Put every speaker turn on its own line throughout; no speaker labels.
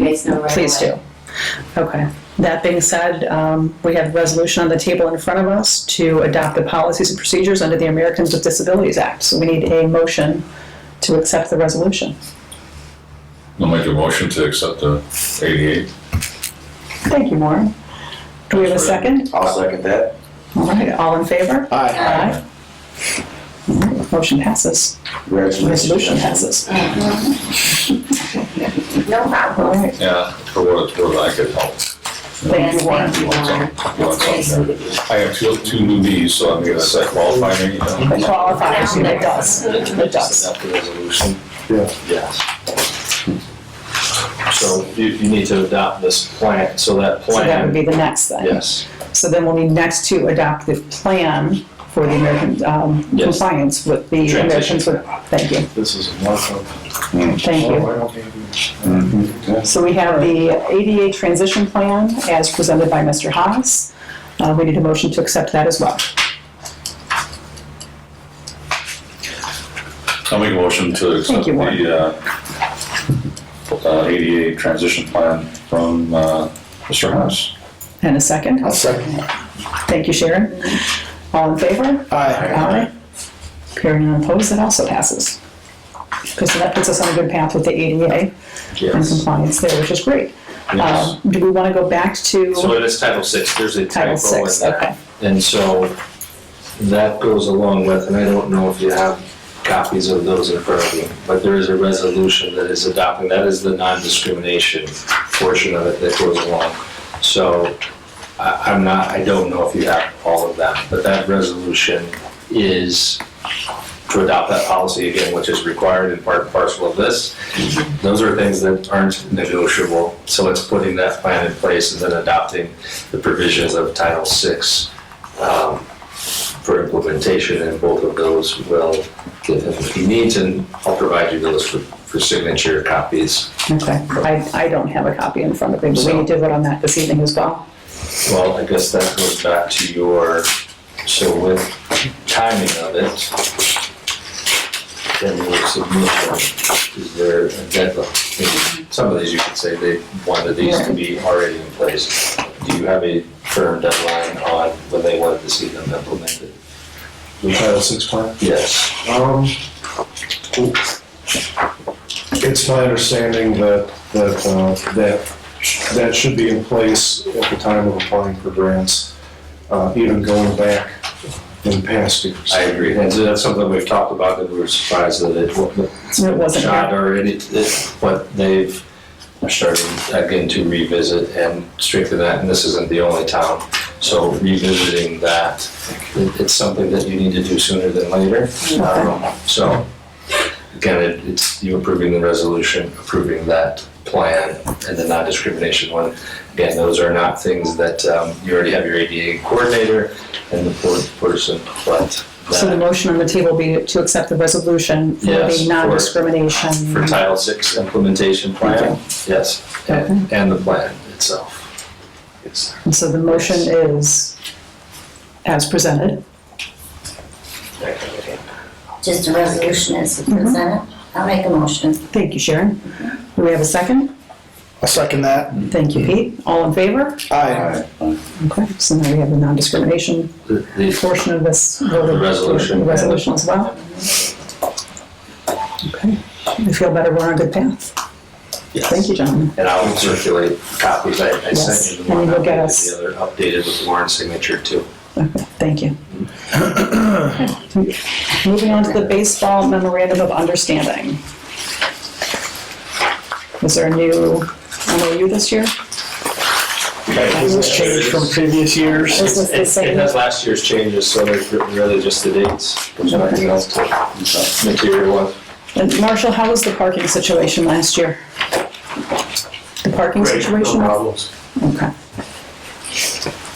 makes no right
Please
away.
do. Okay. That being said, um, we have a resolution on the table in front of us to adopt the policies and procedures under the Americans with Disabilities Act. So we need a motion to accept the resolution.
I'll make a motion to accept the eighty-eight.
Thank you, Maureen. Do we have a second?
I'll second that.
All right, all in favor?
Aye.
Aye. All right, Motion passes. Resolution passes.
No
All
problem.
right.
Yeah, for what it's worth, I could help.
Thank you, Warren.
Thank you, Warren.
You want
Nice
something
of
there?
you.
I have two, two new knees, so I'm gonna set qualifying, you know.
It qualifies, you know, it does. It does.
Adopt the resolution?
Yeah.
Yes. So you, you need to adopt this plan, so that
So that would
plan,
be the next thing.
yes,
So then we'll need next to adopt the plan for the American um,
Yes.
compliance with the
Transition.
Americans with, thank you,
this is a mark of.
thank you. So we have the ADA transition plan as presented by Mr. Haas. Uh, We need a motion to accept that as well.
I'll make a motion to accept
you, Warren.
the, uh, uh, eighty-eight transition plan from, uh, Mr. House.
And a second.
I'll second.
Thank you, Sharon. All in favor?
Aye.
Aye. Hearing none opposed, that also passes. Because that puts us on a good path with the ADA and compliance there, which is great.
Yes.
Um, Do we want to go back
So
to
it is Title Six. there's a
Title
typo in
VI?
that.
Okay.
And so that goes along with, and I don't know if you have copies of those in front of you, but there is a resolution that is adopting, that is the non-discrimination portion of it that goes along. So I, I'm not, I don't know if you have all of that, but that resolution is to adopt that policy again, which is required in part and parcel of this. Those are things that aren't negotiable, so it's putting that plan in place and then adopting the provisions of Title VI um, for implementation, and both of those will give him what he needs, and I'll provide you those for, for signature copies.
Okay, I, I don't have a copy in front of me, but we
So-
need to vote on that this evening as well.
Well, I guess that goes back to your, so with timing of it, then we'll submit them. Is there a deadline? Maybe Some of these you could say they wanted these to be already in place. Do you have a firm deadline on when they wanted to see them implemented?
The Title Six plan?
Yes.
Um, it's my understanding that, that, uh, that, that should be in place at the time of applying for grants, uh, even going back in past years.
I agree. And so that's something we've talked about, that we were surprised that it wa-
It wasn't
shot already, it- but they've started again to revisit and strengthen that, and this isn't the only town. So revisiting that, it- it's something that you need to do sooner than later. Um, So, again, it- it's you approving the resolution, approving that plan, and the non-discrimination one. Again, those are not things that, um, you already have your ADA coordinator and the board person, but
So the
that
motion on the table be to accept the resolution for
Yes,
the
for-
non-discrimination.
for Title Six implementation plan, yes, and, and the plan itself.
And so the motion is as presented.
Just a resolution as presented. I'll make a motion.
Thank you, Sharon. Do we have a second?
I'll second that.
Thank you, Pete. All in favor?
Aye.
Okay, so now we have the non-discrimination
The, the
portion of this. voted-
The resolution.
the Resolution as well. Okay, I feel better, we're on a good path. Thank you, gentlemen.
And I'll circulate copies, I, I
Yes,
sent you
and
the one,
you'll
I'll
get
get
us-
the other updated with Warren's signature too.
Okay, Thank you. Moving on to the baseball memorandum of understanding. Is there a new MOU this year?
Has this changed from previous years?
Is this the
It, it
same?
has last year's changes, so there's really just the dates, there's nothing else to, material one.
And Marshall, how was the parking situation last year? The parking
Great, no
situation?
problems.
Okay.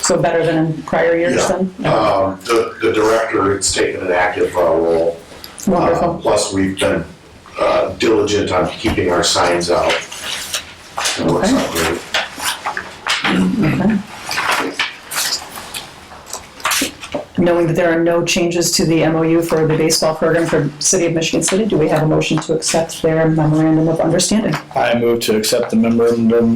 So better than in prior years
Yeah.
then?
Um, the, the director has taken an active uh, role. Uh,
Wonderful.
Plus, we've been uh, diligent on keeping our signs out. It works out great.
Okay. knowing that there are no changes to the MOU for the baseball program for City of Michigan City, do we have a motion to accept their memorandum of understanding?
I move to accept the memorandum